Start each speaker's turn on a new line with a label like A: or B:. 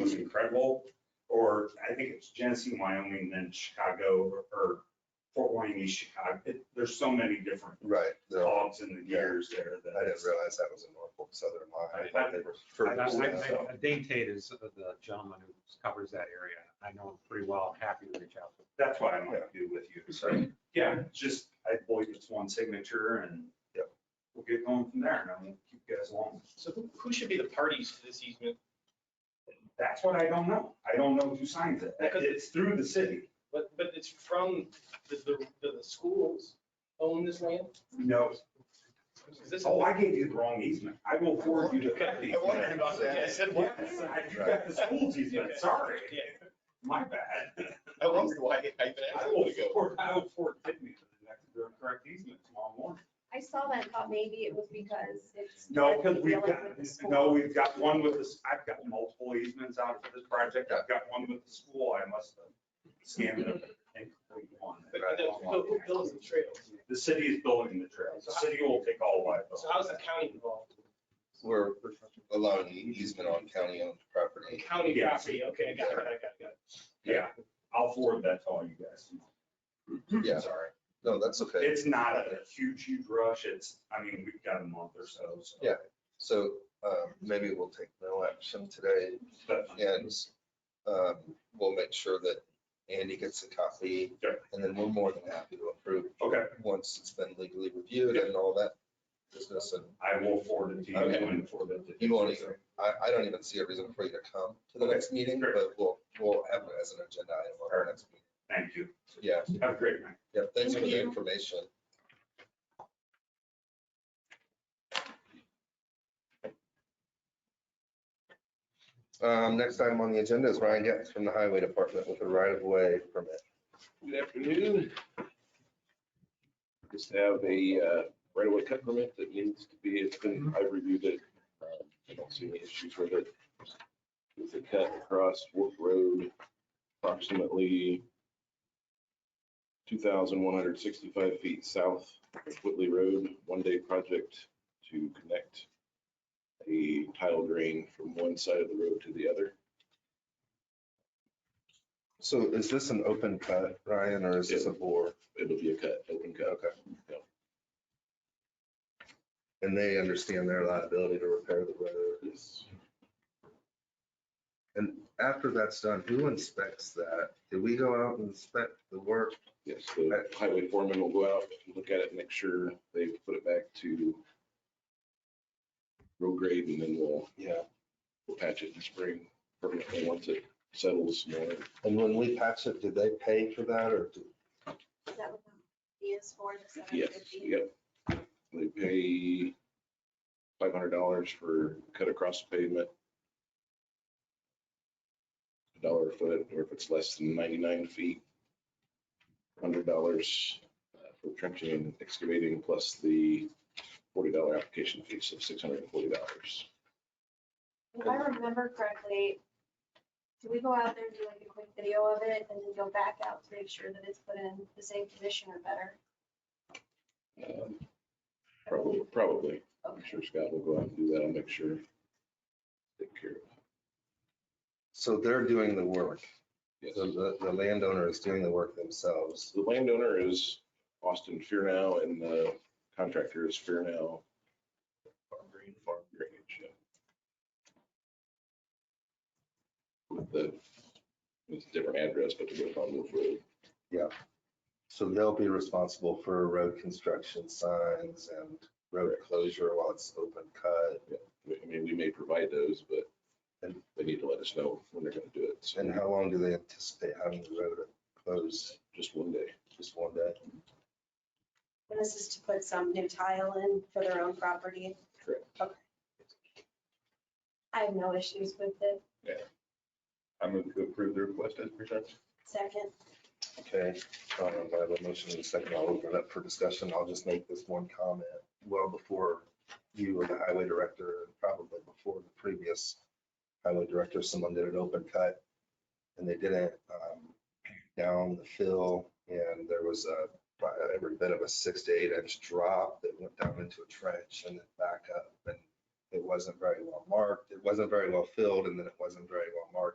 A: was incredible. Or I think it's Genesee, Wyoming, then Chicago or Fort Wayne, East Chicago. It- There's so many different
B: Right. no,
A: cogs in the gears there
B: I
A: that
B: didn't
A: it's.
B: realize that was a Norfolk Southern line.
A: I- I-
B: They were further
A: I- I-
B: south.
C: Uh, Dane Tate is the gentleman who covers that area. I know him pretty well. I'm happy to reach out to him.
A: That's what I'm gonna do with you. So, yeah, just, I believe it's one signature and
B: Yep.
A: we'll get going from there and I'm gonna keep you guys along.
D: So who, who should be the parties to this easement?
A: That's what I don't know. I don't know who signs it.
D: Because-
A: It's through the city.
D: But, but it's from, the, the, the- the schools own this land?
A: No,
D: Is this?
A: Oh, I gave you the wrong easement. I will forward you the
D: Okay,
A: copy.
D: I wondered about that. I said, what?
A: Yes, I- You got the school's easement, sorry.
D: Yeah,
A: My bad.
D: I wondered why I even
A: I
D: asked
A: will
D: you to go.
A: forward, I will forward it to you, the next- the correct easement tomorrow morning.
E: I saw that, and thought maybe it was because it's.
A: No, because
E: directly
A: we've
E: dealing
A: got,
E: with the school.
A: no, we've got one with this, I've got multiple easements out for this project. I've got one with the school. I must have scanned it and completed one.
D: But the- so who builds the trails?
A: The city is building the trails. The city will take all liability.
D: So how's the county involved?
B: We're allowing easement on county-owned property.
D: County
A: Yeah.
D: property, okay, I got it, I got it, I got it.
A: Yeah, I'll forward that to all you guys.
B: Yeah,
A: Sorry.
B: no, that's okay.
A: It's not a huge, huge rush. It's, I mean, we've got a month or so, so.
B: Yeah. So um, maybe we'll take no action today
A: But-
B: and um, we'll make sure that Andy gets a copy.
A: Sure.
B: And then we're more than happy to approve
A: Okay,
B: once it's been legally reviewed and all that business. And
A: I will forward it to you
B: Okay.
A: and forward it to.
B: You won't even- I, I don't even see a reason for you to come to the
A: Okay,
B: next meeting,
A: sure.
B: but we'll, we'll have it as an agenda item on our next meeting.
A: Thank you.
B: Yeah,
A: Have a great night.
B: yeah, thanks for
E: Thank
B: the
E: you.
B: information. Um, next item on the agenda is Ryan Getz from the Highway Department with a right-of-way permit.
F: Good afternoon. Just have a uh, right-of-way cut permit that needs to be, it's been, I've reviewed it. um, I don't see any issues with it. It's a cut across Wolf Road approximately 2,165 feet south of Whitley Road, one-day project to connect a tile drain from one side of the road to the other.
B: So is this an open cut, Ryan, or is this a bore?
F: It'll be a cut, open cut.
B: Okay. And they understand their liability to repair the road.
F: It's-
B: And after that's done, who inspects that? Do we go out and inspect the work?
F: Yes, the highway foreman will go out, look at it, make sure they put it back to road grade and then we'll, yeah, we'll patch it in the spring permanently once it settles more.
B: And when we patch it, do they pay for that or do?
E: Is that what the fee is for, the
F: Yes,
E: 750?
F: yep. They pay five hundred dollars for cut across the pavement. A dollar a foot, or if it's less than ninety-nine feet, hundred dollars uh, for trenching and excavating, plus the forty dollar application fee, so six hundred and forty dollars.
E: If I remember correctly, do we go out there and do like a quick video of it and then go back out to make sure that it's put in the same condition or better?
F: Um, Probably, probably. I'm
E: Okay.
F: sure Scott will go out and do that. I'll make sure. Take care of it.
B: So they're doing the work.
F: Yes.
B: So the, the landowner is doing the work themselves.
F: The landowner is Austin Fearnow and the contractor is Fearnow. Farm Green, Farm Drainage. yeah. With the, with a different address, but to go on Wolf Road.
B: So they'll be responsible for road construction signs and road closure while it's open cut.
F: I mean, we may provide those, but
B: And-
F: they need to let us know when they're gonna do it. So
B: And how long do they anticipate having the road closed?
F: just one day.
B: Just one day?
E: And this is to put some new tile in for their own property.
F: Correct.
E: Okay. I have no issues with it.
F: I move to approve the request as presented.
E: Second,
B: Okay, um, I have a motion and a second. I'll open it up for discussion. I'll just make this one comment. Well, before you or the highway director, and probably before the previous highway director, someone did an open cut. And they did it um, down the fill and there was a, by every bit of a six to eight inch drop that went down into a trench and then back up. And it wasn't very well marked. It wasn't very well filled and then it wasn't very well marked.